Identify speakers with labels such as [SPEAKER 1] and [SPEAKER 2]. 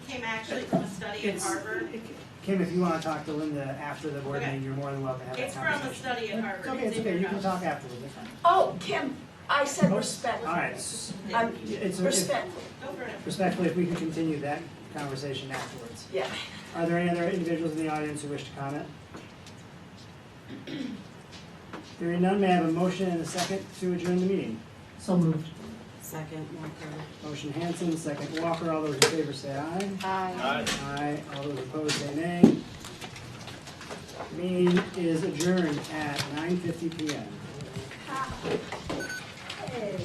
[SPEAKER 1] came actually from a study at
[SPEAKER 2] It's-
[SPEAKER 1] Harvard.
[SPEAKER 2] Kim, if you wanna talk to Linda after the board
[SPEAKER 1] Okay.
[SPEAKER 2] meeting, you're more than welcome to have that
[SPEAKER 1] It's from a
[SPEAKER 2] conversation.
[SPEAKER 1] study at Harvard.
[SPEAKER 2] It's okay, it's
[SPEAKER 1] in
[SPEAKER 2] okay,
[SPEAKER 1] your
[SPEAKER 2] you can
[SPEAKER 1] notes.
[SPEAKER 2] talk afterwards, it's fine.
[SPEAKER 3] Oh, Kim, I said respect.
[SPEAKER 2] Alright,
[SPEAKER 3] I'm
[SPEAKER 2] it's, if-
[SPEAKER 3] respectful,
[SPEAKER 1] Go for it.
[SPEAKER 2] respectfully, if we can continue that conversation afterwards.
[SPEAKER 3] yeah.
[SPEAKER 2] Are there any other individuals in the audience who wish to comment? Hearing none, may I have a motion and a second to adjourn the meeting?
[SPEAKER 4] So moved.
[SPEAKER 5] Second, Walker.
[SPEAKER 2] Motion Hanson, second Walker, all those in favor say aye.
[SPEAKER 5] Aye.
[SPEAKER 2] Aye, all those opposed say nay. Meeting is adjourned at nine fifty P M.
[SPEAKER 3] Hey.